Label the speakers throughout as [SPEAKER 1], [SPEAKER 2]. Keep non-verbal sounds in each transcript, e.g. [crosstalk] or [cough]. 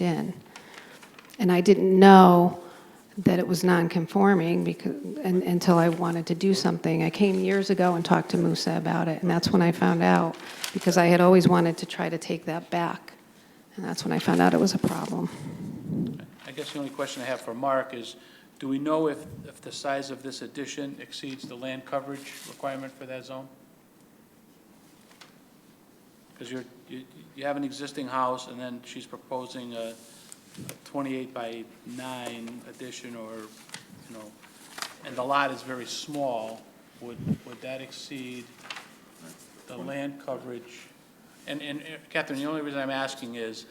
[SPEAKER 1] in. And I didn't know that it was non-conforming because, un- until I wanted to do something. I came years ago and talked to Musa about it, and that's when I found out, because I had always wanted to try to take that back. And that's when I found out it was a problem.
[SPEAKER 2] I guess the only question I have for Mark is, do we know if, if the size of this addition exceeds the land coverage requirement for that zone? Because you're, you, you have an existing house, and then she's proposing a a 28 by 9 addition, or, you know, and the lot is very small, would, would that exceed the land coverage? And, and uh, Catherine, the only reason I'm asking is,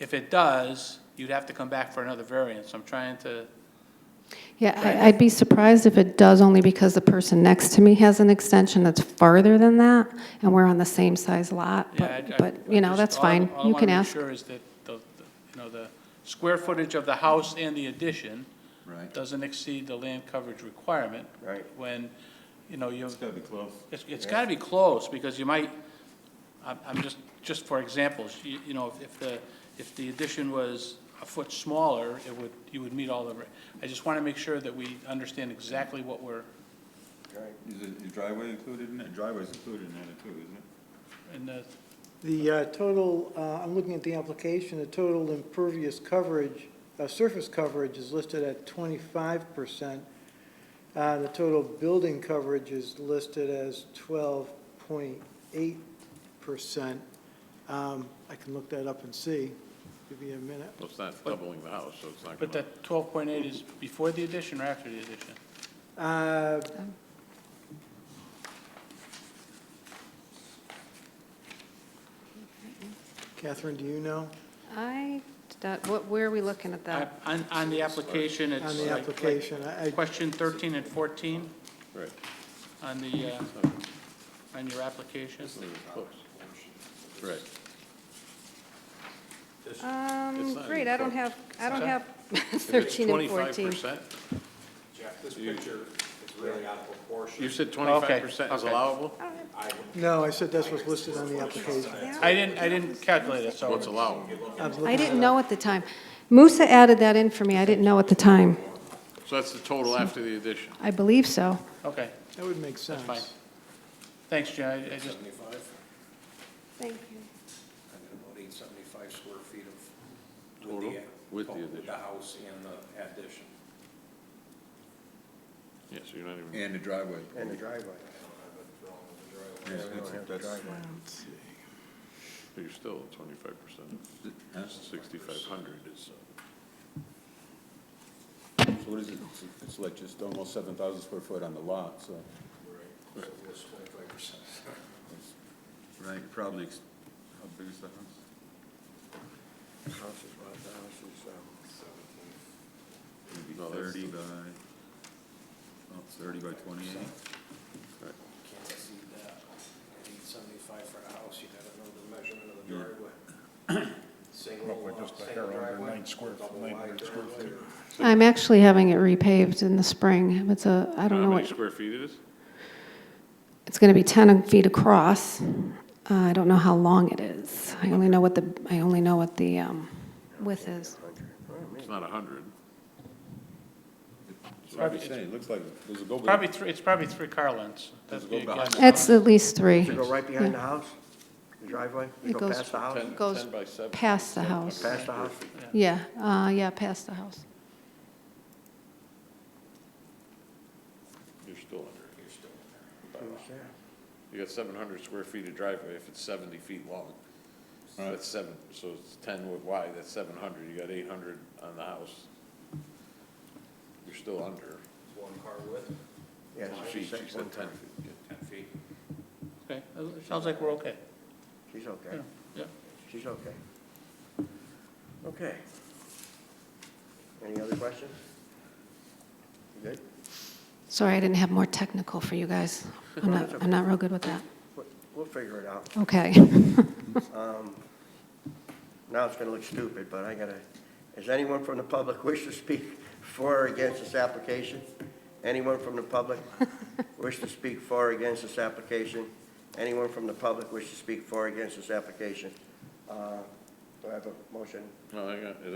[SPEAKER 2] if it does, you'd have to come back for another variance. I'm trying to,
[SPEAKER 1] Yeah, I- I'd be surprised if it does, only because the person next to me has an extension that's farther than that, and we're on the same size lot,
[SPEAKER 2] yeah, I- I-
[SPEAKER 1] but, but, you know, that's
[SPEAKER 2] just- all I-
[SPEAKER 1] fine.
[SPEAKER 2] all I
[SPEAKER 1] You
[SPEAKER 2] wanna
[SPEAKER 1] can
[SPEAKER 2] make
[SPEAKER 1] ask.
[SPEAKER 2] sure is that, the, the- you know, the square footage of the house and the addition
[SPEAKER 3] Right.
[SPEAKER 2] doesn't exceed the land coverage requirement.
[SPEAKER 3] Right.
[SPEAKER 2] When, you know, you
[SPEAKER 3] It's gotta be close.
[SPEAKER 2] It's, it's gotta be close, because you might, I'm, I'm just, just for examples, you, you know, if- if the, if the addition was a foot smaller, it would, you would meet all the, re- I just wanna make sure that we understand exactly what we're,
[SPEAKER 3] Is it- is driveway included in it? Driveway's included in that too, isn't it?
[SPEAKER 2] and, uh,
[SPEAKER 4] The uh, total, uh, I'm looking at the application, the total impervious coverage, uh, surface coverage is listed at 25%. Uh, The total building coverage is listed as 12.8%. Um, I can look that up and see. Give me a minute.
[SPEAKER 5] Well, it's not doubling the house, so it's not
[SPEAKER 2] but
[SPEAKER 5] going to,
[SPEAKER 2] that twelve point eight is before the addition or after the addition?
[SPEAKER 4] Uh, Catherine, do you know?
[SPEAKER 1] I, that- what, where are we looking at that?
[SPEAKER 2] I- On, on the application, it's
[SPEAKER 4] On
[SPEAKER 2] like-
[SPEAKER 4] the
[SPEAKER 2] like
[SPEAKER 4] application, I- I-
[SPEAKER 2] Question thirteen and fourteen
[SPEAKER 5] right,
[SPEAKER 2] on the, uh, on your application.
[SPEAKER 5] close. Right.
[SPEAKER 1] Um,
[SPEAKER 5] It's not
[SPEAKER 1] great,
[SPEAKER 5] even
[SPEAKER 1] I don't
[SPEAKER 5] close.
[SPEAKER 1] have, I don't have [laughs]
[SPEAKER 5] If it's
[SPEAKER 1] 13 and 14.
[SPEAKER 5] 25%,
[SPEAKER 6] Jeff, this picture is really out of proportion.
[SPEAKER 5] You said 25% is
[SPEAKER 2] okay.
[SPEAKER 5] allowable?
[SPEAKER 1] I don't have-
[SPEAKER 4] No, I said that's what's listed on the application.
[SPEAKER 2] I didn't, I didn't calculate it, so.
[SPEAKER 1] Oh.
[SPEAKER 5] What's allowable?
[SPEAKER 4] I'm
[SPEAKER 1] I
[SPEAKER 4] looking
[SPEAKER 1] didn't know at the time. Musa added that in for me, I didn't know at the time.
[SPEAKER 5] So that's the total after the addition.
[SPEAKER 1] I believe so.
[SPEAKER 2] Okay,
[SPEAKER 4] That would make sense.
[SPEAKER 2] fine. thanks, Jen, I I just,
[SPEAKER 6] Seventy-five,
[SPEAKER 1] Thank you.
[SPEAKER 6] I got about eight seventy-five square feet of.
[SPEAKER 5] Total? With the
[SPEAKER 6] total
[SPEAKER 5] addition.
[SPEAKER 6] oh, The house and the addition.
[SPEAKER 5] Yeah, so you're not even,
[SPEAKER 3] And the driveway.
[SPEAKER 7] And the driveway.
[SPEAKER 3] Yes, that's- that's-
[SPEAKER 5] you're still at 25%
[SPEAKER 3] huh?
[SPEAKER 5] of 6,500 is,
[SPEAKER 3] So what is it? It's- It's like just almost seven thousand square foot on the lot, so.
[SPEAKER 6] Twenty-five percent.
[SPEAKER 3] Right, probably, ex- how big is the house?
[SPEAKER 7] The house is what, the house is, um,
[SPEAKER 3] Maybe
[SPEAKER 5] No, that's-
[SPEAKER 3] thirty by, oh, thirty by twenty-eight?
[SPEAKER 6] Can't see that. Eight seventy-five for a house, you gotta know the measurement of the
[SPEAKER 3] Yeah.
[SPEAKER 6] driveway. Single, uh, single driveway. double wide driveway.
[SPEAKER 1] I'm actually having it repaved in the spring. It's a, I don't know
[SPEAKER 5] how many
[SPEAKER 1] what,
[SPEAKER 5] square feet it is?
[SPEAKER 1] it's going to be 10 feet across. Uh, I don't know how long it is. I only know what the, I only know what the um, width is.
[SPEAKER 5] It's not 100.
[SPEAKER 3] That's what I'm saying, it looks like, does it go?
[SPEAKER 2] Probably three, it's probably three car lengths. That'd
[SPEAKER 3] Let's
[SPEAKER 2] be
[SPEAKER 3] go
[SPEAKER 2] a guess.
[SPEAKER 3] behind
[SPEAKER 1] It's at least three.
[SPEAKER 7] Go right behind the house, the driveway,
[SPEAKER 1] It
[SPEAKER 7] go
[SPEAKER 1] goes-
[SPEAKER 7] past the house,
[SPEAKER 5] 10
[SPEAKER 1] Goes
[SPEAKER 5] 10 by 7.
[SPEAKER 1] past the house.
[SPEAKER 7] past the house.
[SPEAKER 1] Yeah, uh, yeah, past the house.
[SPEAKER 5] You're still under. You're still
[SPEAKER 7] Who's there?
[SPEAKER 5] You got 700 square feet of driveway if it's 70 feet long. So That's seven, so it's 10 wi- wide, that's 700, you got 800 on the house. You're still under
[SPEAKER 6] One car width,
[SPEAKER 7] Yeah,
[SPEAKER 5] 10
[SPEAKER 7] it's
[SPEAKER 5] feet, she
[SPEAKER 7] six,
[SPEAKER 5] said
[SPEAKER 7] one
[SPEAKER 5] 10
[SPEAKER 7] time.
[SPEAKER 5] feet. yeah.
[SPEAKER 6] ten feet.
[SPEAKER 2] Okay, it sounds like we're okay.
[SPEAKER 7] She's okay,
[SPEAKER 2] Yeah, yeah.
[SPEAKER 7] she's okay. Okay. Any other questions? You good?
[SPEAKER 1] Sorry, I didn't have more technical for you guys. I'm not, I'm not real good with that.
[SPEAKER 7] We'll- We'll figure it out.
[SPEAKER 1] Okay.
[SPEAKER 7] Now it's gonna look stupid, but I gotta, is anyone from the public wish to speak for or against this application? Anyone from the public wish to speak for or against this application? Anyone from the public wish to speak for or against this application? Uh, Do I have a motion?
[SPEAKER 5] No, I got,